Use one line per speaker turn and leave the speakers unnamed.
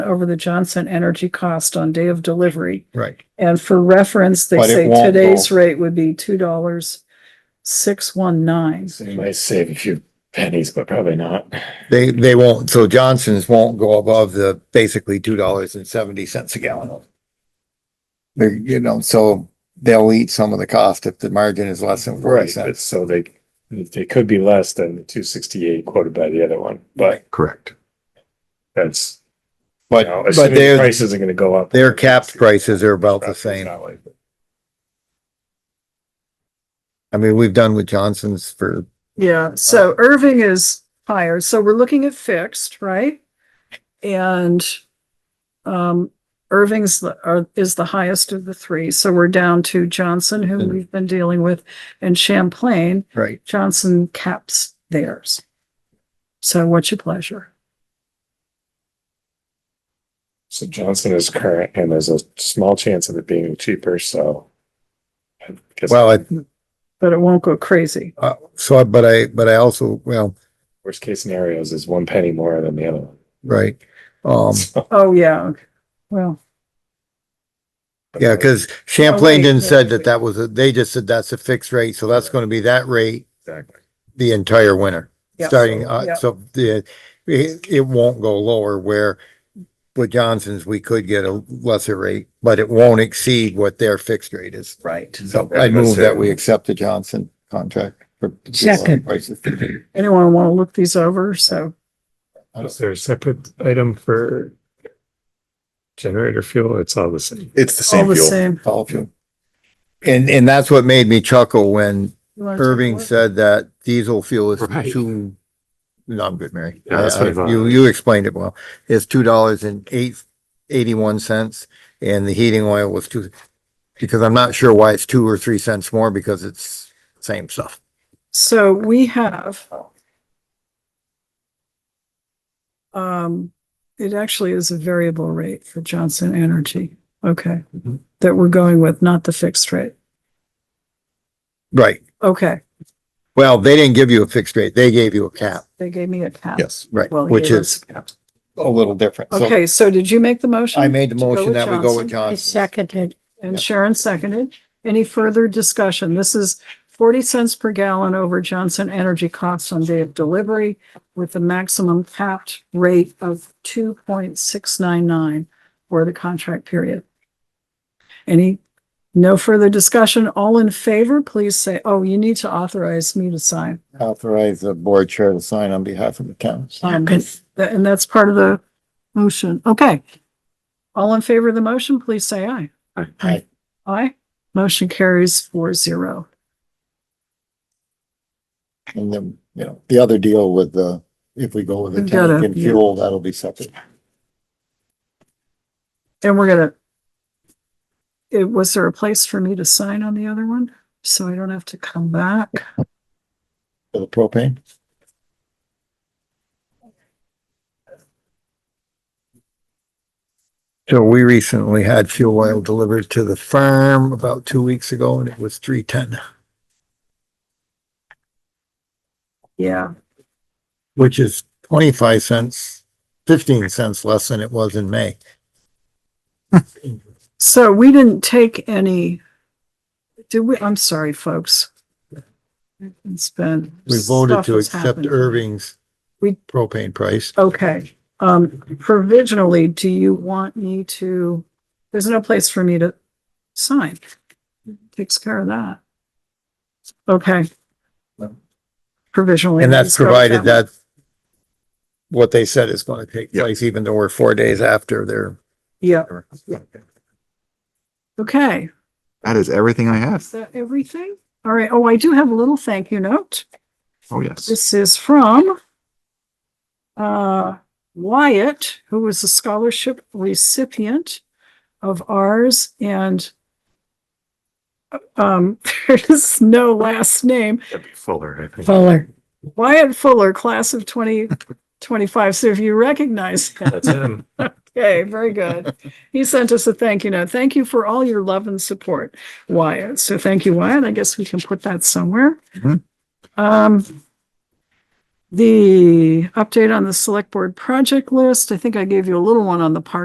over the Johnson Energy cost on day of delivery.
Right.
And for reference, they
But it
say
won't
today's
go.
rate would be two dollars six one nine.
You might save a few pennies, but probably not.
They, they won't, so Johnson's won't go above the basically two dollars and seventy cents a gallon. They're, you know, so they'll eat some of the cost if the margin is less than forty
Right, but
cents.
so they, they could be less than the two sixty-eight quoted by the other one, but
Correct.
that's, you
But,
know,
but
assuming the
their,
prices are gonna go up.
their capped prices are about the same.
Not likely.
I mean, we've done with Johnson's for,
Yeah, so Irving is higher, so we're looking at fixed, right? And um, Irving's the, are, is the highest of the three, so we're down to Johnson, who
Mhm.
we've been dealing with, and Champlain,
right,
Johnson caps theirs. So what's your pleasure?
So Johnson is current and there's a small chance of it being cheaper, so. I guess
well, I,
But it won't go crazy.
uh, so, I- but I, but I also, well,
Worst case scenarios is one penny more than the other one.
right. Um,
So-
Oh, yeah, okay. well,
yeah, cause Champlain
wait,
didn't
wait,
said that
wait.
that was, a they just said that's a fixed rate, so that's gonna be that rate
Exactly.
the entire winter.
Yeah.
Starting,
Yeah.
uh, so the, it, it won't go lower where with Johnson's, we could get a lesser rate, but it won't exceed what their fixed rate is.
right.
So I move that we accept the Johnson contract. for
Second.
prices.
Anyone want to look these over? So
Is there a separate item for generator fuel? It's all the same.
It's the
all the same.
All of you. And, and that's what made me chuckle when
You wanna take a
Irving
look?
said that diesel fuel is
Right.
too. No, I'm good, Mary. Uh,
Yeah, that's what I thought.
You, you explained it well. It's two dollars and eight, eighty-one cents and the heating oil was two. Because I'm not sure why it's two or three cents more because it's same stuff.
So we have. Um, it actually is a variable rate for Johnson Energy, okay,
Mm-hmm.
Mhm.
that we're going with, not the fixed rate.
Right.
Okay,
Well, they didn't give you a fixed rate. They gave you a cap.
they gave me a cap.
Yes. Right,
Well,
which
yeah,
is a little different. So
Okay, so did you make the motion?
I made the motion
with
that we go with
Johnson.
I
Johnson.
seconded.
And Sharon seconded. Any further discussion? This is forty cents per gallon over Johnson Energy costs on day of delivery with the maximum capped rate of two point six nine nine for the contract period. Any, no further discussion? All in favor, please say, oh, you need to authorize me to sign.
Authorize the board chair to sign on behalf of the council.
Um,
Second.
that- And that's part of the motion. Okay. All in favor of the motion, please say aye.
Aye.
Aye.
Aye. Motion carries four zero.
And then, you know, the other deal with the, if we go with the
We've got
tank
a-
and fuel, that'll be separate.
And we're gonna. It, was there a place for me to sign on the other one? So I don't have to come back?
For the propane, So we recently had fuel oil delivered to the farm about two weeks ago and it was three ten,
Yeah,
which is twenty-five cents, fifteen cents less than it was in May.
so we didn't take any. Did we, I'm sorry, folks. It's been.
We voted
stuff
to
has
accept
happened.
Irving's
We-
propane price.
Okay, um, provisionally, do you want me to, there's no place for me to sign. Takes care of that. Okay. Provisionally.
And
let's
that's
go with
provided
one.
that what they said is gonna take place, even though we're four days after their
Yeah, okay.
That is everything I have.
Is that everything? All right. Oh, I do have a little thank you note.
Oh, yes.
This is from uh, Wyatt, who was a scholarship recipient of ours and um, there's no last name.
That'd be Fuller, I think.
Fuller.
Wyatt Fuller, class of twenty twenty-five. So if you recognize him,
That's him.
okay, very good. He sent us a thank you note. Thank you for all your love and support, Wyatt. So thank you, Wyatt. I guess we can put that somewhere.
Mhm.
Um, The update on the select board project list, I think I gave you a little one on the park